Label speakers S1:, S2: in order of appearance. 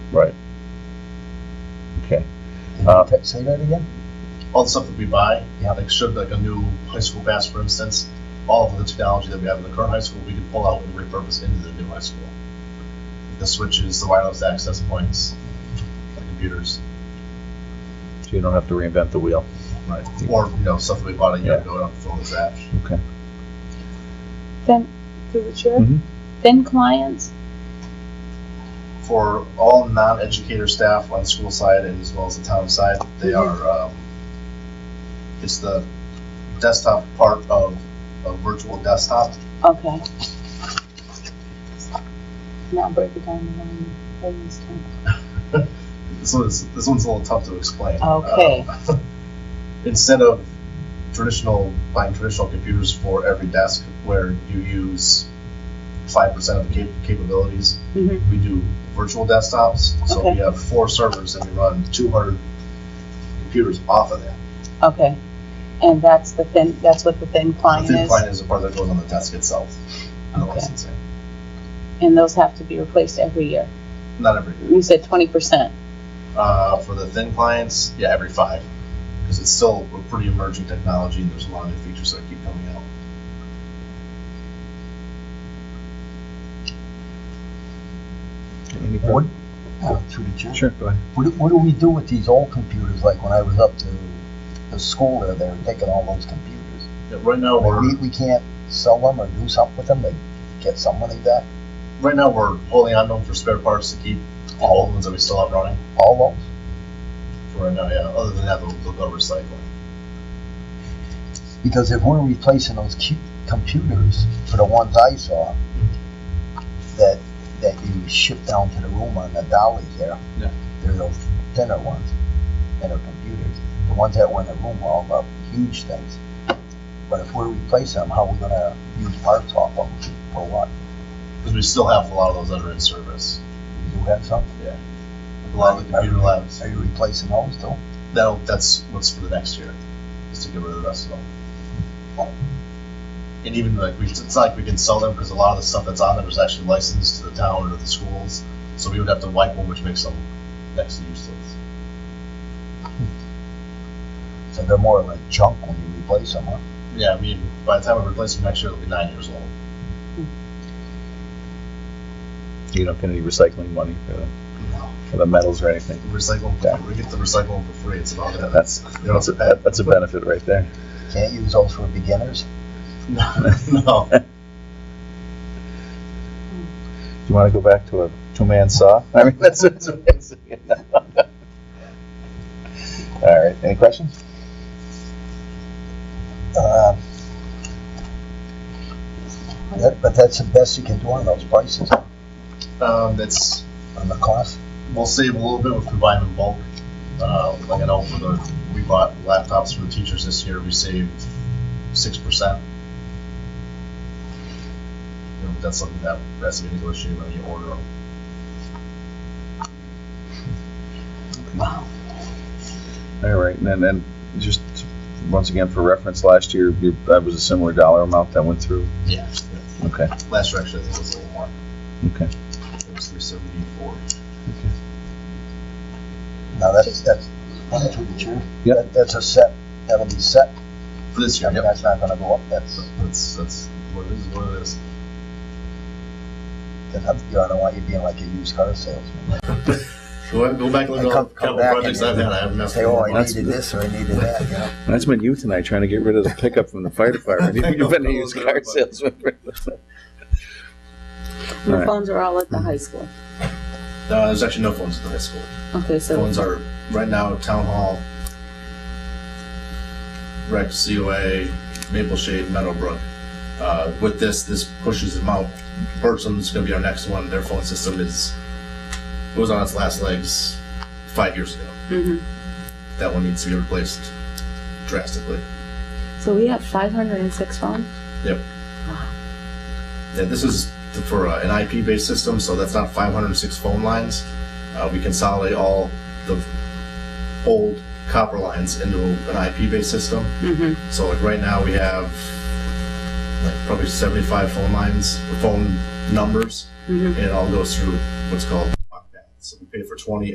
S1: Right. Okay. Uh,
S2: Ta- Say that again?
S3: all the stuff that we buy,
S2: Yeah.
S3: like should like a new high school bass, for instance, all of the technology that we have in the current high school, we can pull out and repurpose into the new high school. The switches, the wireless access points, the computers,
S1: So you don't have to reinvent the wheel.
S3: right? Or you know stuff that we bought a year
S1: Yeah.
S3: ago on Flow's app.
S1: Okay.
S4: Then, through the chair,
S1: Mhm.
S4: then clients,
S3: For all non-educator staff on the school side and as well as the town side, they are um, it's the desktop part of a virtual desktop.
S4: okay. Now break it down in one things.
S3: This one's, this one's a little tough to explain.
S4: Okay.
S3: Uh, Instead of traditional, buying traditional computers for every desk where you use five percent of the cap- capabilities,
S4: Mhm.
S3: we do virtual desktops. So we
S4: Okay.
S3: have four servers and we run two hundred computers off of that.
S4: Okay, and that's the thin, that's what the thin
S3: The
S4: client
S3: thin
S4: is,
S3: client is the part that goes on the desk itself. on the
S4: Okay.
S3: licensing.
S4: and those have to be replaced every year.
S3: Not every,
S4: You said twenty percent.
S3: uh, for the thin clients, yeah, every five. Because it's still a pretty emerging technology and there's a lot of new features that keep coming out.
S1: Any
S2: What,
S1: further-
S2: uh, through the chair?
S1: Sure, go ahead.
S2: What, do- what do we do with these old computers, like when I was up to the school there, they were taking all those computers?
S3: Yeah, Right now,
S2: I mean,
S3: we're
S2: We, we can't sell them or do something with them, they get some money back,
S3: right now we're holding on to them for spare parts to keep all the ones that we still have running
S2: all
S3: for right now. Yeah. Other than that, they'll, they'll go recycling.
S2: those? Because if we're replacing those cu- computers for the ones I saw, that, that you ship down to the room on the dolly there,
S1: Yeah.
S2: they're those thinner ones, thinner computers. The ones that were in the room were all up huge things. But if we're replacing them, how are we gonna use parts off of them for what?
S3: Because we still have a lot of those that are in service.
S2: You have some?
S3: A lot of the computer labs.
S2: Are you replacing those though?
S3: That'll, that's what's for the next year, is to get rid of the rest of them. And even like we, it's not like we can sell them because a lot of the stuff that's on them is actually licensed to the town or the schools. So we would have to wipe them, which makes them next to useless.
S2: So they're more like junk when you replace them, huh?
S3: Yeah, I mean, by the time we replace them next year, they'll be nine years old.
S1: You don't get any recycling money for the, for the metals or anything.
S3: Recycle,
S1: Yeah.
S3: we get to recycle them for free. It's about that.
S1: That's, that's a, that's a benefit right there.
S2: Can't use those for beginners.
S3: No, no.
S1: Do you want to go back to a two-man saw? I mean, that's, that's amazing. All right, any questions?
S2: Uh, that- But that's the best you can do on those prices,
S3: Um, that's
S2: on the cost.
S3: we'll save a little bit if we buy them in bulk. Uh, like I know for the we bought laptops for the teachers this year, we saved six percent. You know, that's something that that's to be negotiated when you order them.
S1: All right, and then, and just, once again, for reference, last year, you- that was a similar dollar amount that went through.
S3: Yeah.
S1: Okay,
S3: Last year actually I think it was a little more.
S1: okay.
S3: It was three seventy four.
S2: Now, that's, that's, that's through the chair.
S1: Yep.
S2: That- That's a set, that'll be set,
S3: For this
S2: I
S3: year,
S2: mean,
S3: yep.
S2: that's not gonna go up, that's,
S3: That's that's what it is what it is.
S2: that's, up to you. I don't want you being like a used car salesman.
S3: Go, go back and
S2: And
S3: look at all
S2: come-
S3: the
S2: come
S3: capital
S2: back
S3: projects
S2: and-
S3: I've had. I haven't messed
S2: Say, oh, I
S3: with
S2: needed this or I needed that, you know?
S1: That's been you tonight, trying to get rid of the pickup from the fire department. You've been a used car salesman. All
S4: Your
S1: right.
S4: phones are all at the high school.
S3: No, there's actually no phones at the high school.
S4: Okay, so,
S3: Phones are right now Town Hall, Rec, COA, Maple Shade, Meadowbrook. Uh, with this, this pushes them out. Bertram's going to be our next one. Their phone system is was on its last legs five years ago.
S4: Mhm.
S3: That one needs to be replaced drastically.
S4: so we have five hundred and six phones?
S3: Yeah, this is for uh, an IP-based system, so that's not 506 phone lines. Uh, we consolidate all the old copper lines into an IP-based system.
S4: Mm-hmm.
S3: So like right now we have like probably 75 phone lines, or phone numbers,
S4: Mhm.
S3: and it all goes through what's called block path. So we paid for twenty